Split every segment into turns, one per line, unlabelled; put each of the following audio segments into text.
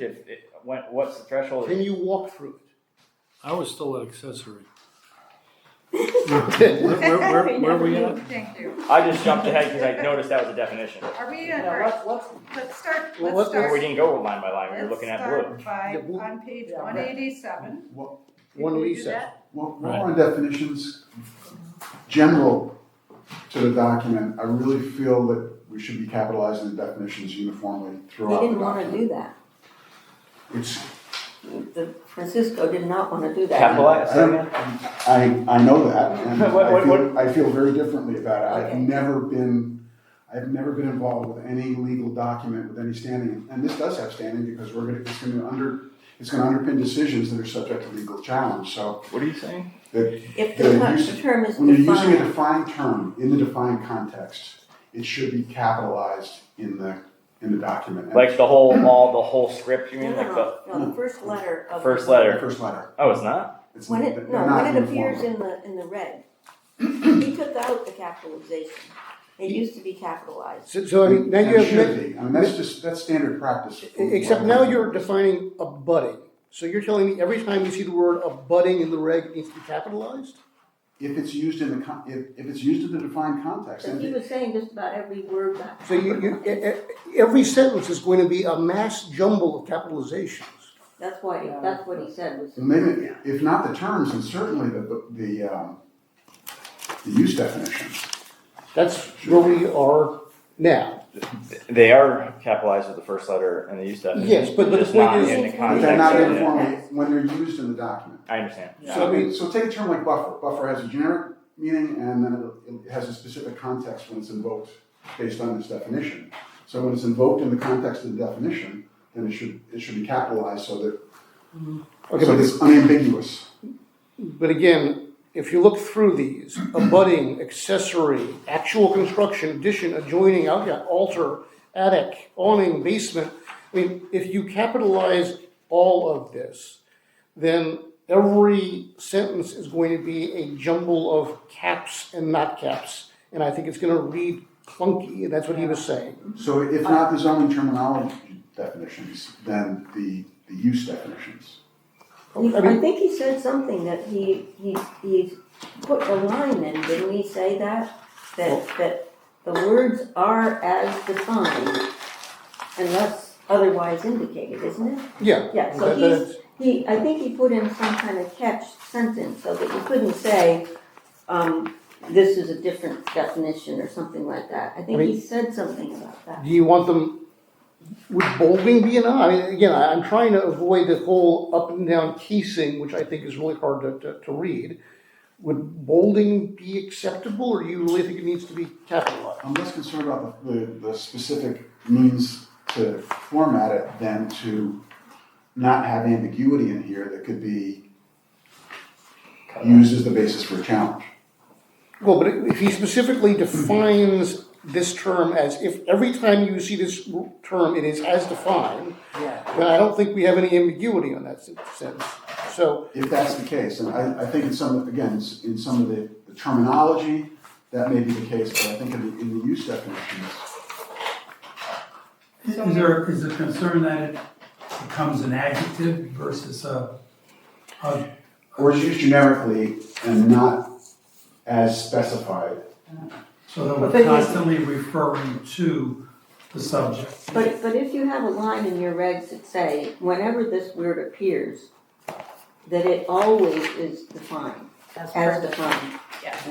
If, it- what, what's the threshold?
Can you walk through
I was still at accessory.
it?
Where, where, where- where are we at?
Thank you.
I just jumped ahead because I noticed that was a definition.
Are we,
Now,
at-
let's, let's,
let's start,
Well, what-
let's start.
We didn't go line by line, we were
Let's
looking at blue.
start by,
Yeah, blue.
on page
Yeah,
one
right.
eighty-seven.
one eighty-seven.
Well, while on definitions, general to the document, I really feel that we should be capitalizing the definitions uniformly
We
throughout the
didn't wanna
document.
do that.
It's,
The Francisco did not wanna do that.
Capitalize, say again?
I, I know that, and
What-
I
what-
feel, I feel very differently about it. I've
Okay.
never been, I've never been involved with any legal document with any standing, and this does have standing because we're gonna, it's gonna under, it's gonna underpin decisions that are subject to legal challenge, so
What are you saying?
that
If
Yeah,
the con-
you
the term is
When you're using a
defined,
defined term in the defined context, it should be capitalized in the, in the document.
Like the whole, all, the whole script, you
no,
mean,
no,
like the
no, no, the first letter of.
first
the-
The
letter?
first letter.
Oh, it's not?
It's-
When it,
Mm. they're
no,
not
when it
uniform.
appears in the, in the red, he took out the capitalization. It used to be capitalized.
So, so I mean, now
And
you
it should
have, E-,
be, I mean, that's just, that's standard practice.
except now you're defining abutting. So you're telling me every time you see the word abutting in the reg, it needs to be capitalized?
If it's used in the, con- if, if it's used in the defined context,
So he
then
was saying just about every word got
So you, you,
capitalized.
e- e- every sentence is going to be a mass jumble of capitalizations.
That's why, that's what he said
Mm.
was.
maybe, if not the terms, and certainly the, the- the, um, the use definition.
That's where we are now.
They are capitalized with the first letter and they use that.
Yes, but- but the
Just
point
not
is-
in the
But
But they're not
context of it.
uniformly, when they're used in the document.
I understand.
So I mean, so take a term like buffer. Buffer has a generic meaning and then it- it has a specific context when it's invoked based on its definition. So when it's invoked in the context of the definition, then it should, it should be capitalized so that,
Mm-hmm. Okay,
so
but
it's unambiguous.
But again, if you look through these, abutting, accessory, actual construction, addition, adjoining, outlet, altar, attic, awning, basement, I mean, if you capitalize all of this, then every sentence is going to be a jumble of caps and not caps. And I think it's gonna read clunky, and that's what he was saying.
So if
Uh,
not the zoning terminology definitions, then the, the use definitions.
He-
I
I
mean-
think he said something that he, he, he put a line in, didn't he say that? That, that the words are as defined unless otherwise indicated, isn't it?
Yeah.
Yeah, so
that-
he's,
that's-
he, I think he put in some kind of catch sentence so that you couldn't say, um, this is a different definition or something like that. I think
I
he said something about that.
Do you want them, would bolding be enough? I mean, again, I- I'm trying to avoid the whole up and down casing, which I think is really hard to, to, to read. Would bolding be acceptable, or do you really think it needs to be capitalized?
I'm less concerned about the, the, the specific means to format it than to not have ambiguity in here that could be used as the basis for a challenge.
Well, but if he specifically defines this term as, if every time you see this term, it is as defined, then I don't think we have any ambiguity on that sen- sentence. So,
If that's the case, and I, I think in some, again, s- in some of the the terminology, that may be the case, but I think in the, in the use definitions,
Is there, is there concern that it becomes an adjective versus a, a,
or it's used generically and not as specified.
so that
But they
we're
use-
constantly referring to the subject?
But, but if you have a line in your regs that say, whenever this word appears, that it always is defined, as defined.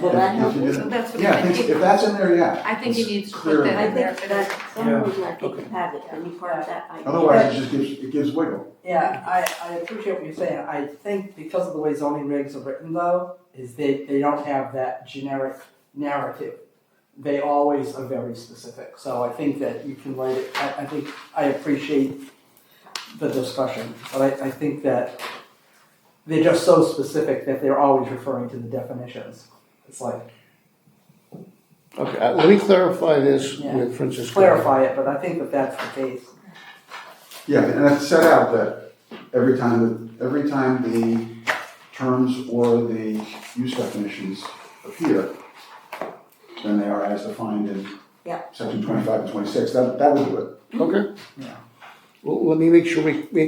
Will that help?
If you
you?
did-
That's
Yeah, I think, if that's in there, yeah.
I think you
it's
need to put
clear.
that
I think that, some
Yeah.
reason I think you have it, any part of that idea.
Otherwise, it just gives, it gives wiggle.
Yeah, I, I appreciate what you're saying. I think because of the way zoning regs are written though, is they, they don't have that generic narrative. They always are very specific, so I think that you can write it, I, I think, I appreciate the discussion, but I, I think that they're just so specific that they're always referring to the definitions. It's like,
okay, uh, let me clarify this
Yeah.
with Francisco.
clarify it, but I think that that's the case.
Yeah, and it's set out that every time, the- every time the terms or the use definitions appear, then they are as defined in
Yeah.
section twenty-five and twenty-six, that, that would do it.
Okay. Well, let me make sure we, we